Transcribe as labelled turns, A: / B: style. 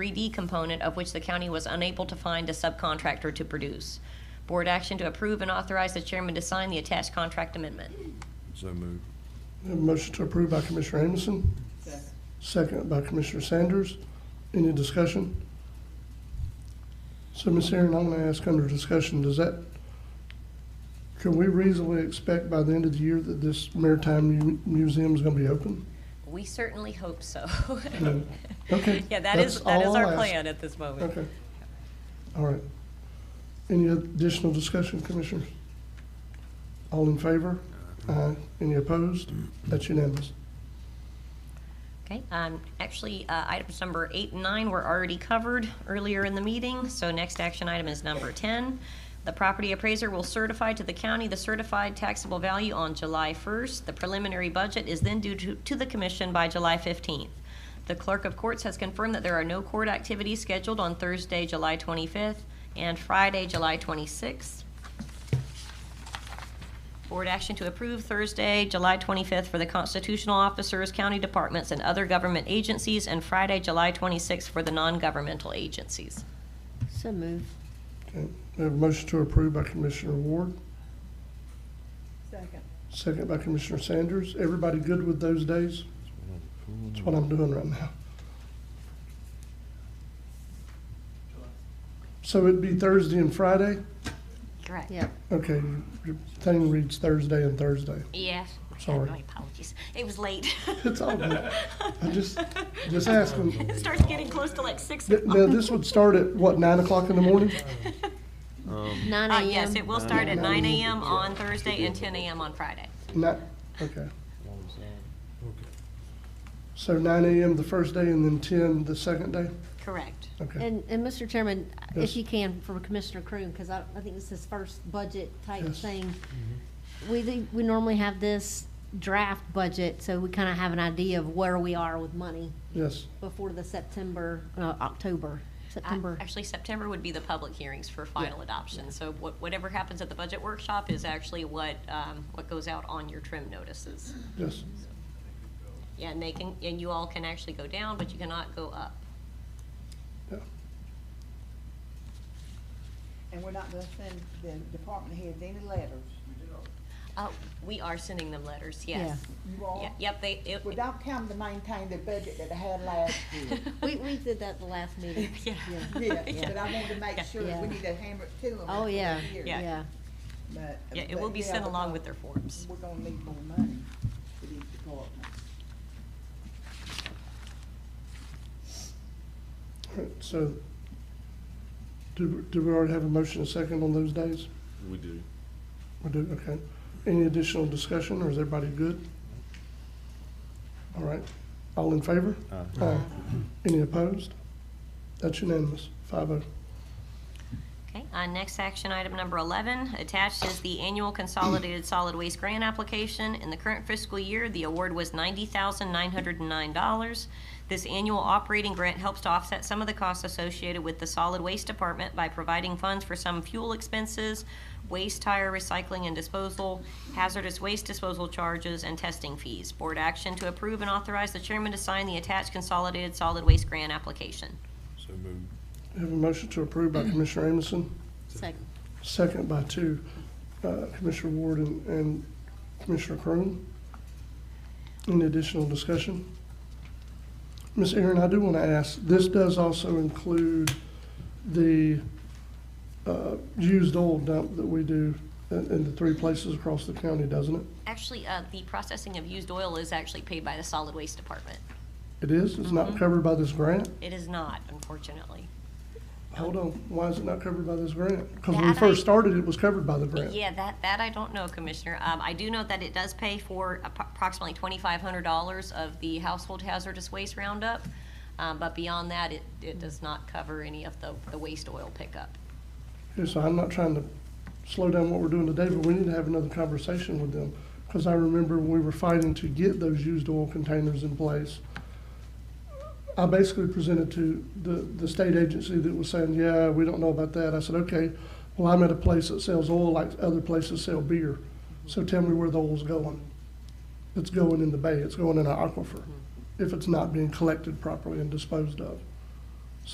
A: 3D component of which the county was unable to find a subcontractor to produce. Board action to approve and authorize the chairman to sign the attached contract amendment.
B: So moved.
C: We have a motion to approve by Commissioner Amison. Second. by Commissioner Sanders. Any discussion? So, Ms. Aaron, I'm gonna ask under discussion, does that, can we reasonably expect by the end of the year that this maritime mu- museum is gonna be open?
A: We certainly hope so.
C: Okay,
A: Yeah, that is,
C: that's
A: that is
C: all I'll
A: our
C: ask.
A: plan at this moment.
C: Okay. All right. Any additional discussion, Commissioners? All in favor? Aye. Any opposed? That's unanimous.
A: Okay, um, actually, uh, items number eight and nine were already covered earlier in the meeting, so next action item is number 10. The property appraiser will certify to the county the certified taxable value on July 1st. The preliminary budget is then due to, to the commission by July 15th. The clerk of courts has confirmed that there are no court activities scheduled on Thursday, July 25th, and Friday, July 26th. Board action to approve Thursday, July 25th for the constitutional officers, county departments, and other government agencies, and Friday, July 26th for the non-governmental agencies.
D: So move.
C: Okay, we have a motion to approve by Commissioner Ward,
D: Second.
C: second by Commissioner Sanders. Everybody good with those days? That's what I'm doing right now. So it'd be Thursday and Friday?
A: Correct.
D: Yep.
C: Okay, your thing reads Thursday and Thursday.
A: Yes.
C: Sorry.
A: My apologies. It was late.
C: It's all good. I just, just asking.
A: It starts getting close to like 6
C: Th- Now, this would start at, what, nine o'clock in the morning?
D: Nine
A: Uh,
D: AM.
A: Yes, it will start at
C: Yeah.
A: 9 AM on Thursday and 10 AM on Friday.
C: Not, okay. So nine AM the first day and then ten the second day?
A: Correct.
C: Okay,
D: And, and Mr. Chairman,
C: Yes.
D: if you can, for Commissioner Croom, because I, I think this is his first budget type
C: Yes.
D: thing.
A: Mm-hmm.
D: We, think- we normally have this draft budget, so we kind of have an idea of where we are with money
C: yes.
D: before the September, uh, October,
A: I-
D: September.
A: Uh, Actually, September would be the public hearings for final adoption. So what- whatever happens at the budget workshop is actually what, um, what goes out on your trim notices.
C: Yes,
A: Yeah, and they can, and you all can actually go down, but you cannot go up.
C: yeah,
E: And we're not gonna send the department heads any letters.
A: Oh, we are sending them letters, yes.
E: You all,
A: Yeah, Yep, they, it,
E: without come to maintain the budget that I had last year.
D: We, we did that the last meeting.
A: yeah,
E: Yeah, but I wanted to make sure
D: Yeah.
E: we need to hammer it to them.
D: Oh,
E: every
D: yeah,
E: year.
A: Yeah.
D: yeah.
E: But-
A: yeah, it
E: but
A: will be
E: yeah,
A: sent along with
E: because
A: their forms.
E: We're gonna need more money for these departments.
C: All right, so, do, do we already have a motion and second on those days?
B: We do.
C: We do, okay. Any additional discussion, or is everybody good? All right, all in favor?
B: Aye.
C: Aye. Any opposed? That's unanimous, five oh.
A: Okay, uh, next action item number 11, attached is the annual consolidated solid waste grant application. In the current fiscal year, the award was $90,909. This annual operating grant helps to offset some of the costs associated with the solid waste department by providing funds for some fuel expenses, waste tire recycling and disposal, hazardous waste disposal charges, and testing fees. Board action to approve and authorize the chairman to sign the attached consolidated solid waste grant application.
B: So moved.
C: We Have a motion to approve by Commissioner Amison,
D: Second.
C: Second by two, uh, Commissioner Ward and- and Commissioner Crone. Any additional discussion? Ms. Aaron, I do want to ask, this does also include the uh, used oil dump that we do in in the three places across the county, doesn't it?
A: Actually, uh, the processing of used oil is actually paid by the solid waste department.
C: It is? It's
A: Mm-hmm.
C: not covered by this grant?
A: It is not, unfortunately.
C: Hold on, why is it not covered by this grant? Because when we
A: That I-
C: first started, it was covered by the grant.
A: Yeah, that, that I don't know, Commissioner. Um, I do know that it does pay for appro- approximately twenty-five hundred dollars of the household hazardous waste roundup. Um, but beyond that, it, it does not cover any of the, the waste oil pickup.
C: Okay, So I'm not trying to slow down what we're doing today, but we need to have another conversation with them. Because I remember when we were fighting to get those used oil containers in place, I basically presented to the, the state agency that was saying, yeah, we don't know about that. I said, okay, well, I'm at a place that sells oil like other places sell beer. So tell me where the oil's going. It's going in the bay, it's going in an aquifer, if it's not being collected properly and disposed of.